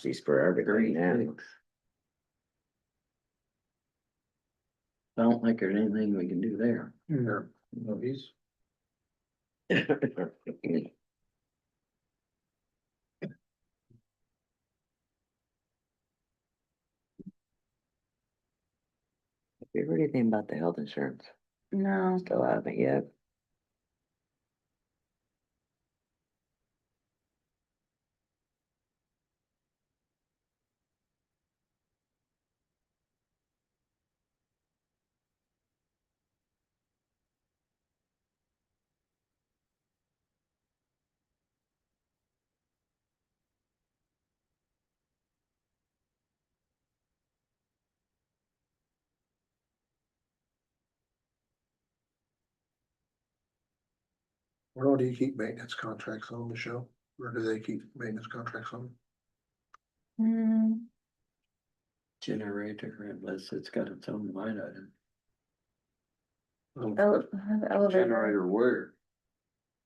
She's for everything Great, now. thanks. I don't think there's anything we can do there. Yeah. No, he's. You heard anything about the health insurance? No, Still haven't yet. Where do you keep maintenance contracts on, Michelle? Where do they keep maintenance contracts on? Hmm, Generator, unless it's got its own line item. Um, ele- elevator, where?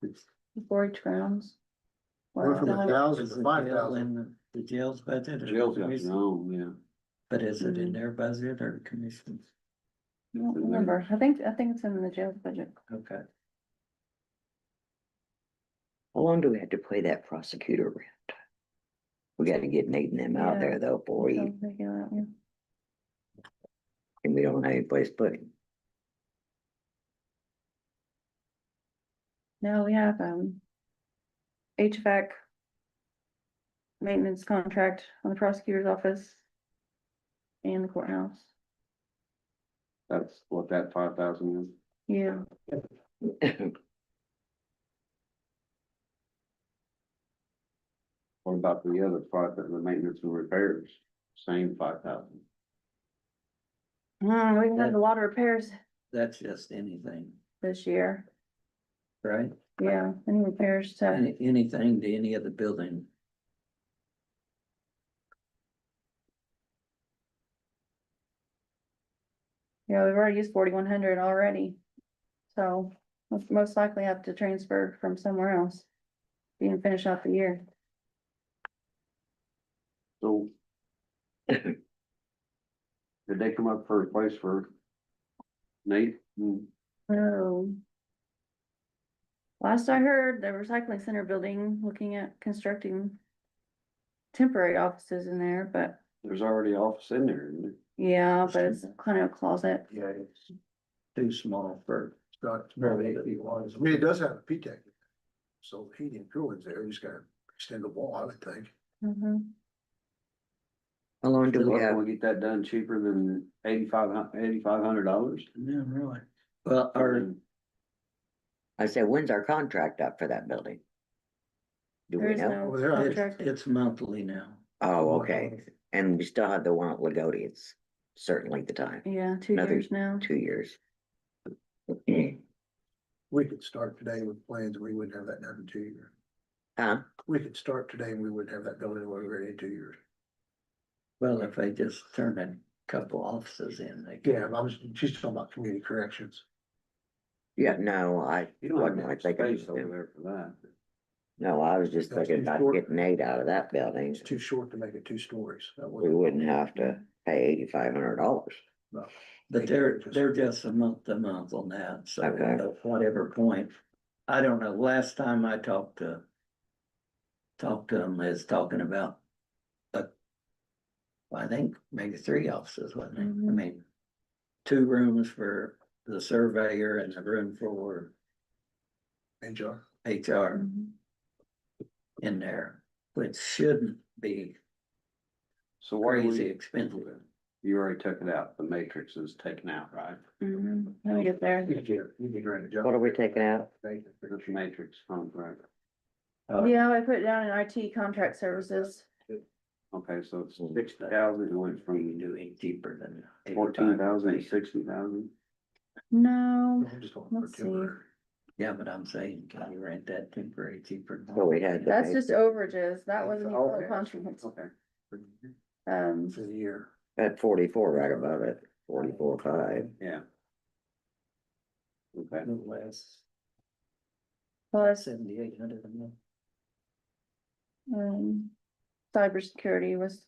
It's. forage grounds. Went from a Wow. thousand is to the five jail thousand. in the- The jail's budget. or Jail's got commission? their own, But is it in Mm. their budget or commission? I don't remember, I think, I think it's in the jail budget. Okay. How long do we have to pay that prosecutor rent? We gotta get Nate and them out Yeah. there though, boy, So, they go out, yeah. and we don't have any place to put him. No, we have, um. HVAC. Maintenance contract on the prosecutor's office. And the courthouse, yeah. That's what that five thousand is. yeah, What about the other five, the maintenance and repairs? Same five thousand. Hmm, we have a lot of repairs That's just anything, this year, right? yeah, any repairs to, Any, anything to any of the building. yeah, we've already used forty-one hundred already. So, most- most likely have to transfer from somewhere else. Even finish out the year, So. Did they come up for a place for Nate? Mm, so. Last I heard, the recycling center building, looking at constructing. Temporary offices in there, but There's already office in there. isn't there? Yeah, but it's kind of a closet. Yeah, it's Too small for, not, it's not eight feet wide. I mean, it does have a P deck. So heating and cooling's there, you just gotta extend the wall, I would think. Mhm. How long do Look, we Can have? we get that done cheaper than eighty-five dollars? no, really. Well, our I said, when's our contract up for that building? Do There we is know? no Over there, it's- it's, contract. it's monthly now. Oh, okay, and we still have the one at Lagodi, it's certain length of time, Yeah, two another years now. two years. We could start today with plans, we wouldn't have that done in two years. Huh? We could start today and we wouldn't have that building when we were ready in two years. Well, if they just turn a couple offices in, they Yeah, could. I was, she's talking about community corrections. Yeah, no, I, You don't have wasn't much like I space just- over there for that. no, I was just That's thinking too about short. getting Nate out of that building, It's too short to make it two stories. That we wouldn't- wouldn't have to pay eighty-five hundred dollars. no. But they're, they're just a month to month on that, so Okay. at whatever point. I don't know, last time I talked to. Talked to them is talking about. a I think maybe three offices, wasn't it? I Mhm. mean. Two rooms for the surveyor and a room for And John. HR Mhm. in there, which shouldn't be So why do crazy we, expensive. you already took it out. The matrix is taken out, right? Mhm. Let me get there. You can, you can grant a job. What are we taking out? Thank you. The matrix contract. Uh, Yeah, I put it down in IT contract services. Okay, so it's sixty thousand, it went From from doing deeper than. fourteen thousand to 85. sixty thousand. No, I'm just going for Let's see. temporary. Yeah, but I'm saying, can you rent that temporary cheaper? So we had that's the, just overages. That wasn't even Okay. a contract. Okay. Um, For the year. at forty-four, right above it, forty-four, five, Yeah. Okay, No less, plus, seventy-eight hundred a month. um, cybersecurity was